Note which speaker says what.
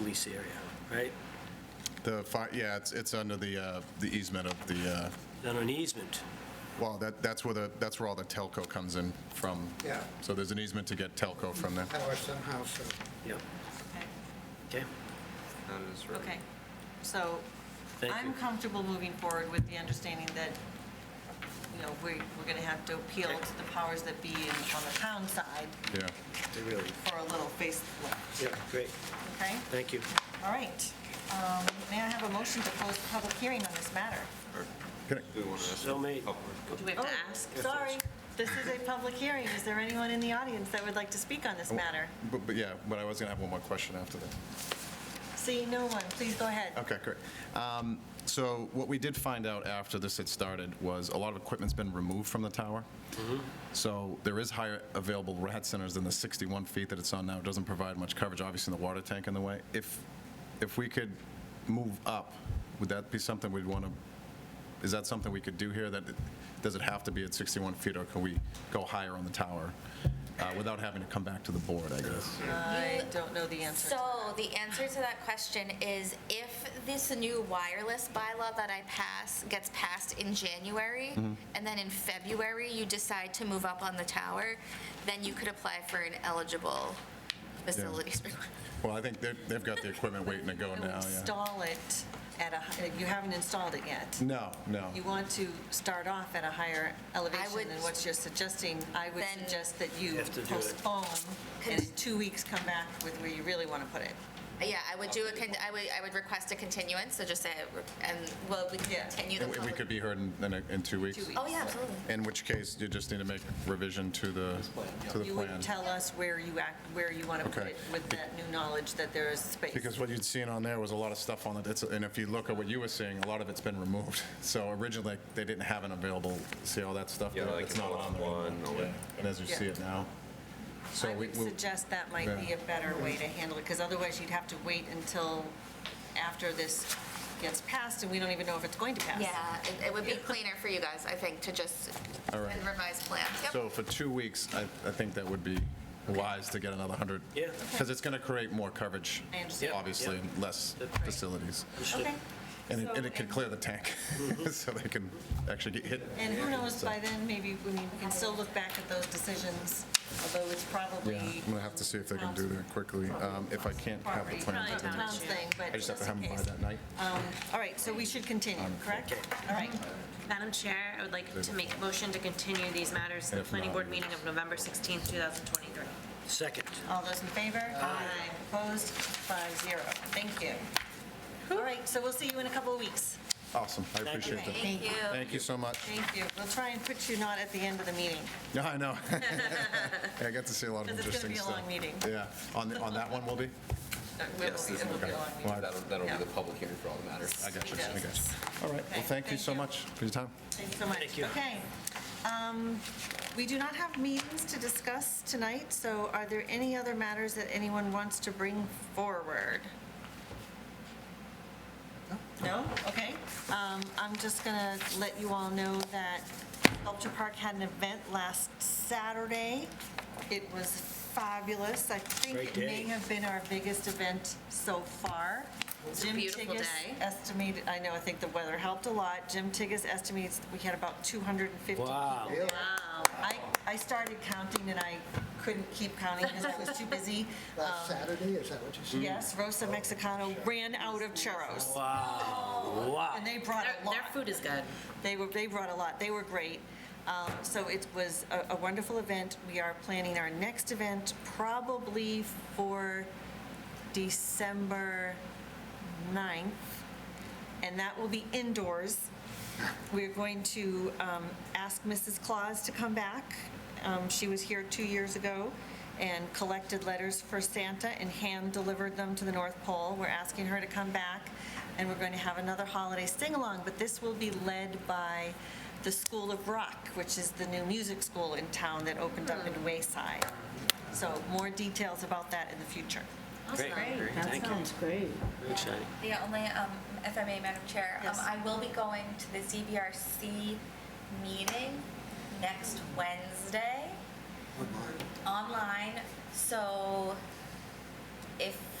Speaker 1: lease area, right?
Speaker 2: The, fi- yeah, it's, it's under the, uh, the easement of the, uh,
Speaker 1: Done an easement.
Speaker 2: well, that, that's where the, that's where all the telco comes in from.
Speaker 3: Yeah.
Speaker 2: So there's an easement to get telco from there.
Speaker 3: power somehow, so
Speaker 1: Yep. Okay,
Speaker 4: Okay, so
Speaker 1: Thank
Speaker 4: I'm
Speaker 1: you.
Speaker 4: comfortable moving forward with the understanding that, you know, we, we're going to have to appeal to the powers that be in- on the town side
Speaker 2: Yeah.
Speaker 1: They really,
Speaker 4: for a little facelift,
Speaker 1: yeah, great,
Speaker 4: okay?
Speaker 1: thank you.
Speaker 4: All right. Um, May I have a motion to close the public hearing on this matter?
Speaker 1: So made.
Speaker 4: Do we have to ask? Sorry, this is a public hearing. Is there anyone in the audience that would like to speak on this
Speaker 1: Oh.
Speaker 4: matter?
Speaker 2: But, but yeah, but I was going to have one more question after that.
Speaker 4: See no one, please go ahead.
Speaker 2: Okay, great. Um, So what we did find out after this had started was a lot of equipment's been removed from the tower. So there is higher available rad centers than the 61 feet that it's on now. It doesn't provide much coverage, obviously, in the water tank in the way. If, if we could move up, would that be something we'd want to, is that something we could do here? That, it- does it have to be at 61 feet, or can we go higher on the tower uh, without having to come back to the board, I guess?
Speaker 4: I don't know the answer. to
Speaker 5: So the answer to that question is if this new wireless bylaw that I pass gets passed in January,
Speaker 2: Mm-hmm.
Speaker 5: and then in February you decide to move up on the tower, then you could apply for an eligible facilities.
Speaker 2: Well, I think they've, they've got the equipment waiting to go
Speaker 4: that.
Speaker 2: now, yeah.
Speaker 4: Install it at a, hi- you haven't installed it yet.
Speaker 2: No, no.
Speaker 4: You want to start off at a higher elevation
Speaker 5: would-
Speaker 4: than what you're suggesting. I would
Speaker 5: Then-
Speaker 4: suggest that you
Speaker 1: have to do it.
Speaker 4: postpone and in
Speaker 5: Cons-
Speaker 4: two weeks come back with where you really want to put it.
Speaker 5: Yeah, I would do a, con- I would, I would request a continuance, so just say, and, well, we
Speaker 4: Yeah.
Speaker 5: can continue the
Speaker 2: And we- We
Speaker 5: public.
Speaker 2: could be heard in- in, a- in two weeks?
Speaker 4: Two weeks.
Speaker 5: Oh, yeah, absolutely.
Speaker 2: In which case, you just need to make revision to the, to the
Speaker 4: You would
Speaker 2: plan.
Speaker 4: tell us where you act, where you want to put
Speaker 2: Okay.
Speaker 4: it with that new knowledge that there is space.
Speaker 2: Because what you'd seen on there was a lot of stuff on it, it's- and if you look at what you were seeing, a lot of it's been removed. So originally, they didn't have an available, see all that stuff?
Speaker 6: Yeah,
Speaker 2: there?
Speaker 6: like
Speaker 2: It's not on there.
Speaker 6: one,
Speaker 2: anymore.
Speaker 6: or-
Speaker 2: Yeah. And as you see it now. So
Speaker 4: I
Speaker 2: we-
Speaker 4: would
Speaker 2: we-
Speaker 4: suggest that might be
Speaker 2: Yeah.
Speaker 4: a better way to handle it, because otherwise you'd have to wait until after this gets passed, and we don't even know if it's going to pass.
Speaker 5: Yeah, it, it would be cleaner for you guys, I think, to just,
Speaker 2: All right.
Speaker 5: and revise plan. Yep.
Speaker 2: So for two weeks, I, I think that would be wise to get another 100.
Speaker 1: Yeah.
Speaker 2: Because it's going to create more coverage,
Speaker 4: I understand.
Speaker 2: obviously,
Speaker 1: Yep,
Speaker 2: and less facilities.
Speaker 4: Okay.
Speaker 2: And it,
Speaker 4: So-
Speaker 2: and it could clear the tank, so they can actually get hit.
Speaker 4: And who knows, by then, maybe, I mean, we can still look back at those decisions, although it's probably.
Speaker 2: Yeah, I'm gonna have to see if they can do that quickly, um, if I can't have the
Speaker 4: Property,
Speaker 2: plan.
Speaker 4: Tom's
Speaker 2: to do it.
Speaker 4: thing, but
Speaker 2: I just have to have them by
Speaker 4: just in
Speaker 2: that Um, night.
Speaker 4: All right, so we should continue, correct? All right.
Speaker 7: Madam Chair, I would like to make a motion to continue these matters to the
Speaker 2: If
Speaker 7: planning
Speaker 2: not,
Speaker 7: board
Speaker 2: we-
Speaker 7: meeting of November 16, 2023.
Speaker 1: Second,
Speaker 4: All those in favor? Aye. Opposed? Five zero. Thank you. All right, so we'll see you in a couple of weeks.
Speaker 2: Awesome, I appreciate that.
Speaker 5: Thank you.
Speaker 2: Thank you so much.
Speaker 4: Thank you. We'll try and put you not at the end of the meeting,
Speaker 2: Yeah, I know. Yeah, I got to see a lot of
Speaker 4: because it's
Speaker 2: interesting
Speaker 4: going to be a
Speaker 2: stuff.
Speaker 4: long meeting.
Speaker 2: Yeah, on, the- on that one will be?
Speaker 4: Uh, we'll-
Speaker 6: Yes,
Speaker 4: It will be a long meeting.
Speaker 6: That'll, that'll be
Speaker 4: Yeah.
Speaker 6: the public hearing for all the matters.
Speaker 2: I got you, I
Speaker 4: Yeah.
Speaker 2: got you. All right,
Speaker 4: Okay,
Speaker 2: well, thank you
Speaker 4: thank
Speaker 2: so
Speaker 4: you.
Speaker 2: much for your time.
Speaker 4: Thanks so much.
Speaker 1: Thank you.
Speaker 4: Okay. Um, We do not have meetings to discuss tonight, so are there any other matters that anyone wants to bring forward? No? Okay. Um, I'm just going to let you all know that Sculpture Park had an event last Saturday. It was fabulous. I think
Speaker 1: Great
Speaker 4: it may
Speaker 1: day.
Speaker 4: have been our biggest event so far.
Speaker 5: was a
Speaker 4: Jim
Speaker 5: beautiful
Speaker 4: Tigas
Speaker 5: day.
Speaker 4: Estimated, I know, I think the weather helped a lot. Jim Tigas estimates we had about 250 people.
Speaker 1: Wow.
Speaker 4: there. I, I started counting and I couldn't keep counting because I was too busy.
Speaker 3: last Saturday, is that what you said?
Speaker 4: Yes, Rosa Mexicano ran out of churros
Speaker 1: wow.
Speaker 4: Oh, and they brought a lot.
Speaker 7: Their food is good.
Speaker 4: They were, they brought a lot, they were great. Um, So it was a- a wonderful event. We are planning our next event probably for December 9th, and that will be indoors. We're going to um, ask Mrs. Claus to come back. Um, She was here two years ago and collected letters for Santa and hand-delivered them to the North Pole. We're asking her to come back, and we're going to have another holiday sing-along, but this will be led by the School of Rock, which is the new music school in town that opened up in Wayside. So more details about that in the future.
Speaker 1: Great, thank
Speaker 8: That
Speaker 1: you.
Speaker 8: sounds great.
Speaker 1: Very exciting.
Speaker 5: Yeah, only, um, if I may, Madam Chair, um,
Speaker 4: Yes.
Speaker 5: I will be going to the ZBRC meeting next Wednesday. Online. so if